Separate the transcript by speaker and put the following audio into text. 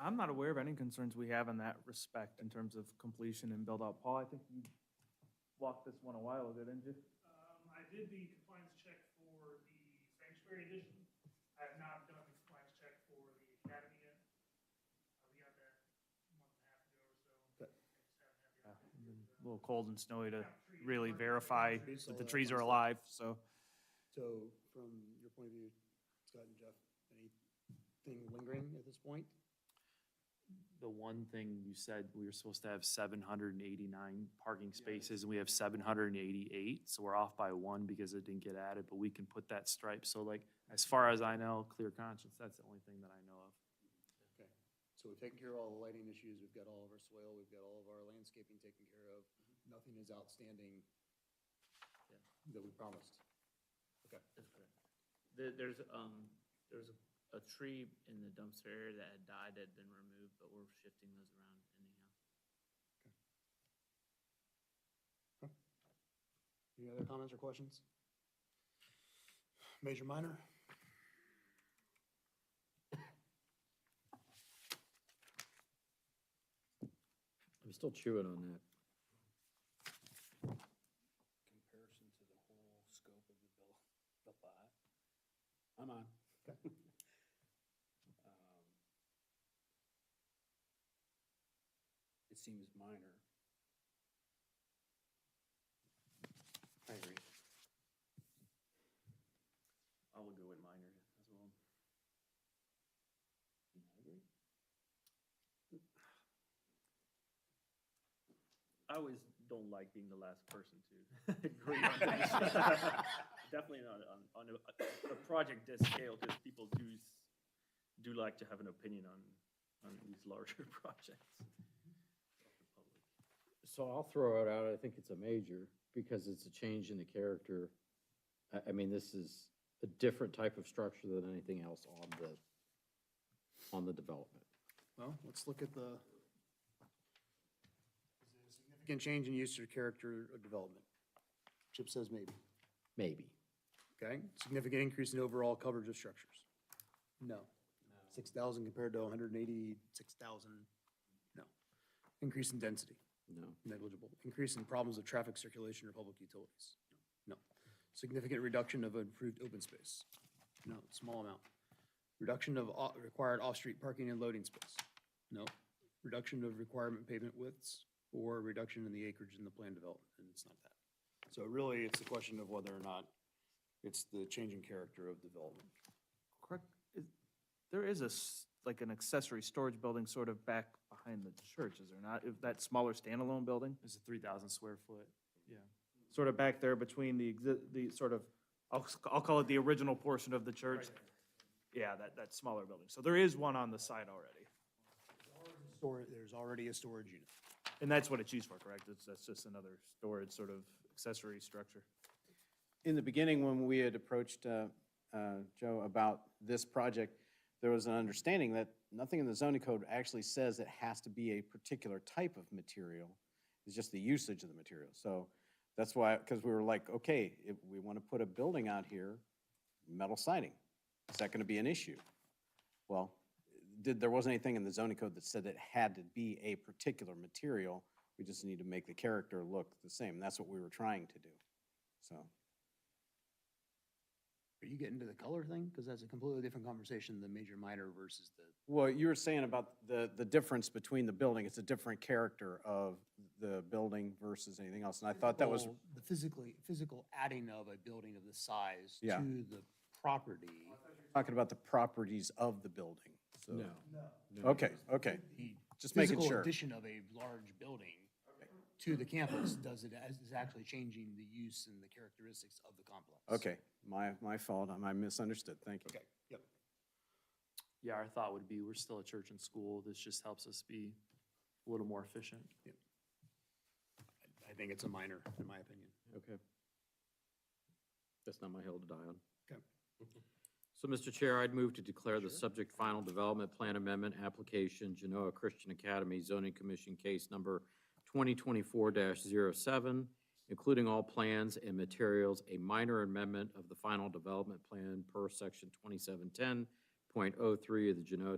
Speaker 1: I'm not aware of any concerns we have in that respect in terms of completion and build out. Paul, I think you walked this one a while ago, didn't you?
Speaker 2: Um, I did the compliance check for the sanctuary edition. I have not done the compliance check for the academy yet. Uh, we got that a month and a half ago or so.
Speaker 3: That-
Speaker 1: Yeah,
Speaker 2: I just
Speaker 1: it's been
Speaker 2: haven't
Speaker 1: A little cold and snowy to
Speaker 2: had the opportunity to- Got trees,
Speaker 1: Ah, really
Speaker 2: park,
Speaker 1: verify
Speaker 2: trees,
Speaker 1: that
Speaker 2: all
Speaker 1: the
Speaker 2: that
Speaker 1: trees
Speaker 2: fun
Speaker 1: are
Speaker 2: stuff.
Speaker 1: alive, so.
Speaker 3: So from your point of view, Scott and Jeff, anything lingering at this point?
Speaker 4: The one thing you said, we were supposed to have seven hundred and eighty-nine parking spaces, and we have seven hundred and eighty-eight, so we're off by one because it didn't get added, but we can put that stripe, so like, as far as I know, clear conscience, that's the only thing that I know of.
Speaker 3: So we've taken care of all the lighting issues, we've got all of our soil, we've got all of our landscaping taken care of, nothing is outstanding that we promised. Okay,
Speaker 5: That's correct. There, there's, um, there was a, a tree in the dumpster area that had died, that had been removed, but we're shifting those around anyhow.
Speaker 3: any other comments or questions? Major, minor?
Speaker 6: I'm still chewing on that.
Speaker 7: comparison to the whole scope of the bill, the lot. I'm on. Um, It seems minor. I agree.
Speaker 4: I will go with minor as well.
Speaker 7: I agree.
Speaker 5: I always don't like being the last person to agree on things. Definitely not on, on a, a project this scale, because people do, s- do like to have an opinion on, on these larger projects.
Speaker 6: So I'll throw it out, I think it's a major, because it's a change in the character. I, I mean, this is a different type of structure than anything else on the, on the development.
Speaker 3: Well, let's look at the. Is there a Significant change in use or character of development. Chip says maybe.
Speaker 6: Maybe.
Speaker 3: Okay, significant increase in overall coverage of structures? No. Six thousand compared to hundred and eighty-six thousand? No. Increase in density,
Speaker 6: No.
Speaker 3: negligible. Increase in problems of traffic circulation or public utilities? No. Significant reduction of improved open space? No, small amount. Reduction of au- required off-street parking and loading space? No. Reduction of requirement pavement widths or reduction in the acreage in the plan development, and it's not that. So really, it's a question of whether or not it's the changing character of development.
Speaker 1: Correct, is, there is a, s- like an accessory storage building sort of back behind the church, is there not? If That smaller standalone building?
Speaker 4: It's a three thousand square foot, yeah.
Speaker 1: Sort of back there between the, exi- the sort of, I'll, s- I'll call it the original portion of the church. Yeah, that, that smaller building. So there is one on the side already.
Speaker 3: Or there's already a storage unit.
Speaker 1: And that's what it's used for, correct? It's, that's just another storage sort of accessory structure.
Speaker 8: in the beginning, when we had approached uh, uh, Joe about this project, there was an understanding that nothing in the zoning code actually says it has to be a particular type of material. It's just the usage of the material. So that's why, because we were like, okay, if we want to put a building out here, metal siding, is that going to be an issue? Well, did, there wasn't anything in the zoning code that said it had to be a particular material. We just need to make the character look the same. That's what we were trying to do, so.
Speaker 3: Are you getting to the color thing? Because that's a completely different conversation, the major minor versus the.
Speaker 8: Well, you were saying about the, the difference between the building, it's a different character of the building versus anything else, and I thought that was,
Speaker 3: physical- The physically, physical adding of a building of the size
Speaker 8: Yeah.
Speaker 3: to the property.
Speaker 8: talking about the properties of the building, so. Okay, okay,
Speaker 3: The
Speaker 8: just making
Speaker 3: Physical
Speaker 8: sure.
Speaker 3: addition of a large building to the campus does it, is actually changing the use and the characteristics of the complex.
Speaker 8: Okay, my, my fault, I- I misunderstood, thank you.
Speaker 3: Okay, yep.
Speaker 4: Yeah, our thought would be, we're still a church and school, this just helps us be a little more efficient.
Speaker 3: I think it's a minor, in my opinion.
Speaker 6: Okay. That's not my hill to die on.
Speaker 3: Okay.
Speaker 6: So, Mr. Chair, I'd move to declare the subject final development plan amendment application Genoa Christian Academy zoning commission case number twenty twenty-four 7 including all plans and materials, a minor amendment of the final development plan per section twenty-seven ten point oh three of the Genoa